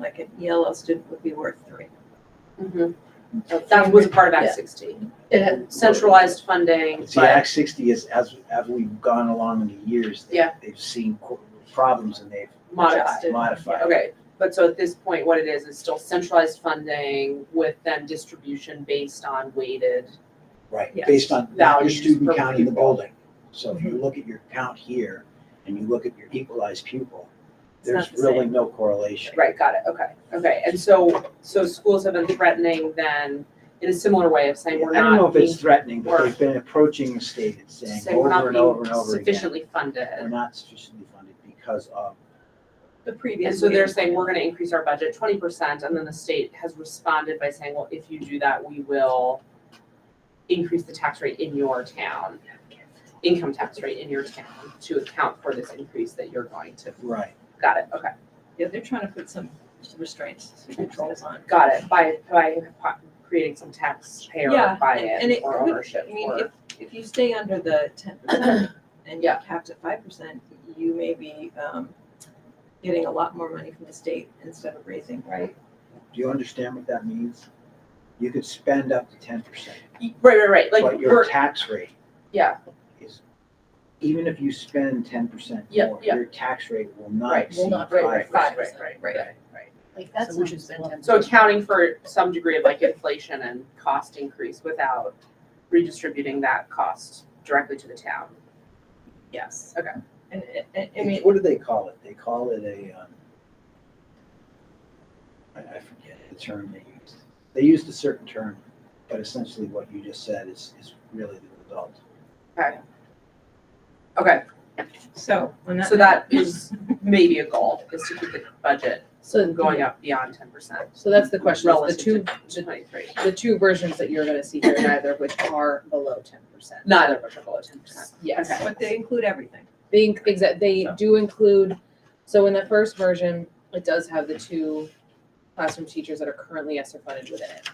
like an ELL student would be worth three. Mm-hmm. That was a part of Yeah. Act sixteen, It had, centralized funding, See, but Act sixty is, as, as we've gone along in the years, they've, Yeah. they've seen co- problems and they've modified. modified. Okay, but so at this point, what it is, is still centralized funding with then distribution based on weighted. Right, Yeah. based on your Values Mm-hmm. per student count in the pupil. building. So if you look at your count here and you look at your equalized pupil, It's not there's the really no correlation. Right, got it, okay, okay, and so, so schools have been threatening then, in a similar way of I saying, we're don't know not if it's being, threatening, but we're- they've been approaching the state and saying saying we're over not and over being and over again, sufficiently funded. we're not sufficiently funded because of, the And previous so they're year. saying, we're gonna increase our budget twenty percent, and then the state has responded by saying, well, if you do that, we will increase the tax rate in your town, income tax rate in your town to account for this increase that you're going to. right. Got it, okay, Yeah, they're trying to put some restraints, some controls on. got it, by, by po- creating some taxpayer Yeah, and buy-in it or could- ownership I mean, or- if, if you stay under the ten percent and you Yeah. capped at five percent, you may be, um, getting a lot more money from the state instead of raising, right? Do you understand what that means? You could spend up to ten percent, Right, right, right, like, but your we're, tax rate yeah, is, even if you spend ten percent Yeah, more, yeah. your tax rate will not Right, exceed right, right, five right, percent. right, right, right. Right, right. Like that's. So we should spend not- 10%. So accounting for some degree of like inflation and cost increase without redistributing that cost directly to the town. Yes, okay. And, and, I mean, What do they call it? They call it a, um, I, I forget the term they used. They used a certain term, but essentially what you just said is, is really the result. Okay, so, on that. so that is maybe a goal, is to keep the budget So going up beyond ten percent. So that's the question, is the two, Twenty-three. the two versions that you're gonna see here, neither of which are below ten percent. Neither of us are below ten percent. Yes. Okay. But they include everything. They, exact, they So- do include, so in the first version, it does have the two classroom teachers that are currently ESSER funded within it.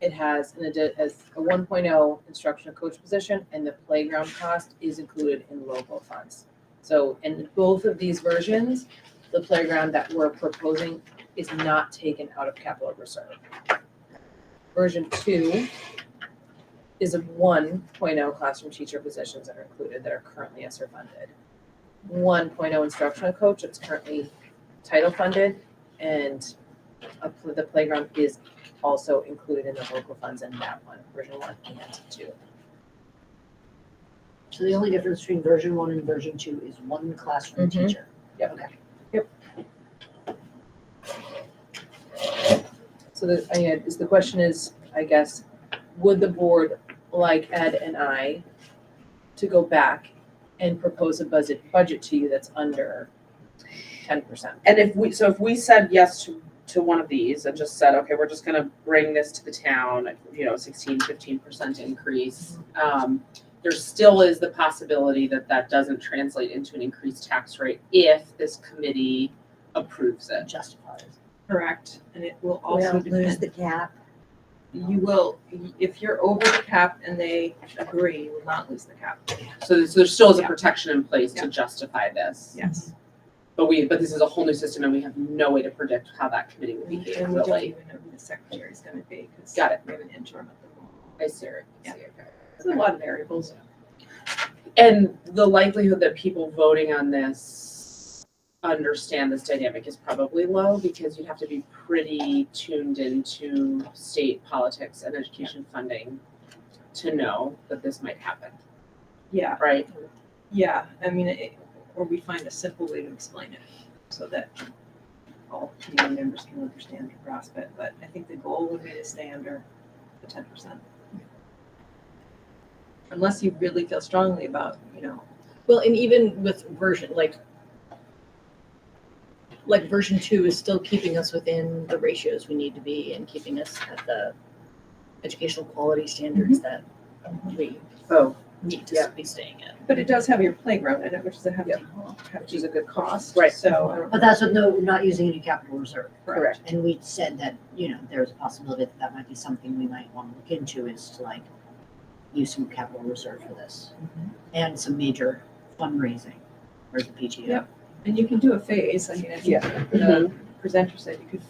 It has an addi- as a one oh instructional coach position and the playground cost is included in local funds. So in both of these versions, the playground that we're proposing is not taken out of capital reserve. Version two is a one oh classroom teacher positions that are included that are currently ESSER funded. One oh instructional coach, it's currently title funded and a pl- the playground is also included in the local funds in that one, version one and two. So the only difference between version one and version two is one classroom Mhm. teacher. So the, I had, is the question is, I guess, would the board like Ed and I to go back and propose a budget, budget to you that's under ten percent? And if we, so if we said yes to, to one of these and just said, okay, we're just gonna bring this to the town, you know, sixteen, fifteen percent increase. Um, there still is the possibility that that doesn't translate into an increased tax rate if this committee approves it. Justified. Correct. And it will also lose, the cap. you will, if you're over the cap and they agree, you will not lose the cap. So there's, there still is a Yeah. protection in place to Yeah. justify this. Yes. But we, but this is a whole new system and we have no way to predict how that committee would And we behave, don't really. even know who the secretary's gonna be, because. Got it. We have an interim at the moment. I see, it. I Yeah. see, it. okay. There's a lot of variables. And the likelihood that people voting on this understand this dynamic is probably low because you'd have to be pretty tuned into state politics and education funding to know that this might happen, Yeah, right? Yeah, I mean, it, or we find a simple way to explain it so that all community members can understand and grasp it, but I think the goal would be to stay under the ten percent. Unless you really feel strongly about, you know, Well, and even with version, like, like version two is still keeping us within the ratios we need to be and keeping us at the educational quality standards that we So, need Yeah. to be staying at. but it does have your playground in it, which is a hefty, hefty is a good cost, Right. so I don't. But that's with no, not using any capital reserve. correct. And we said that, you know, there's a possibility that that might be something we might want to look into is to like use some capital reserve for this and some major fundraising for the PTO. Yep. And you can do a phase, I mean, I think Yeah. Mm-hmm. the presenter said you could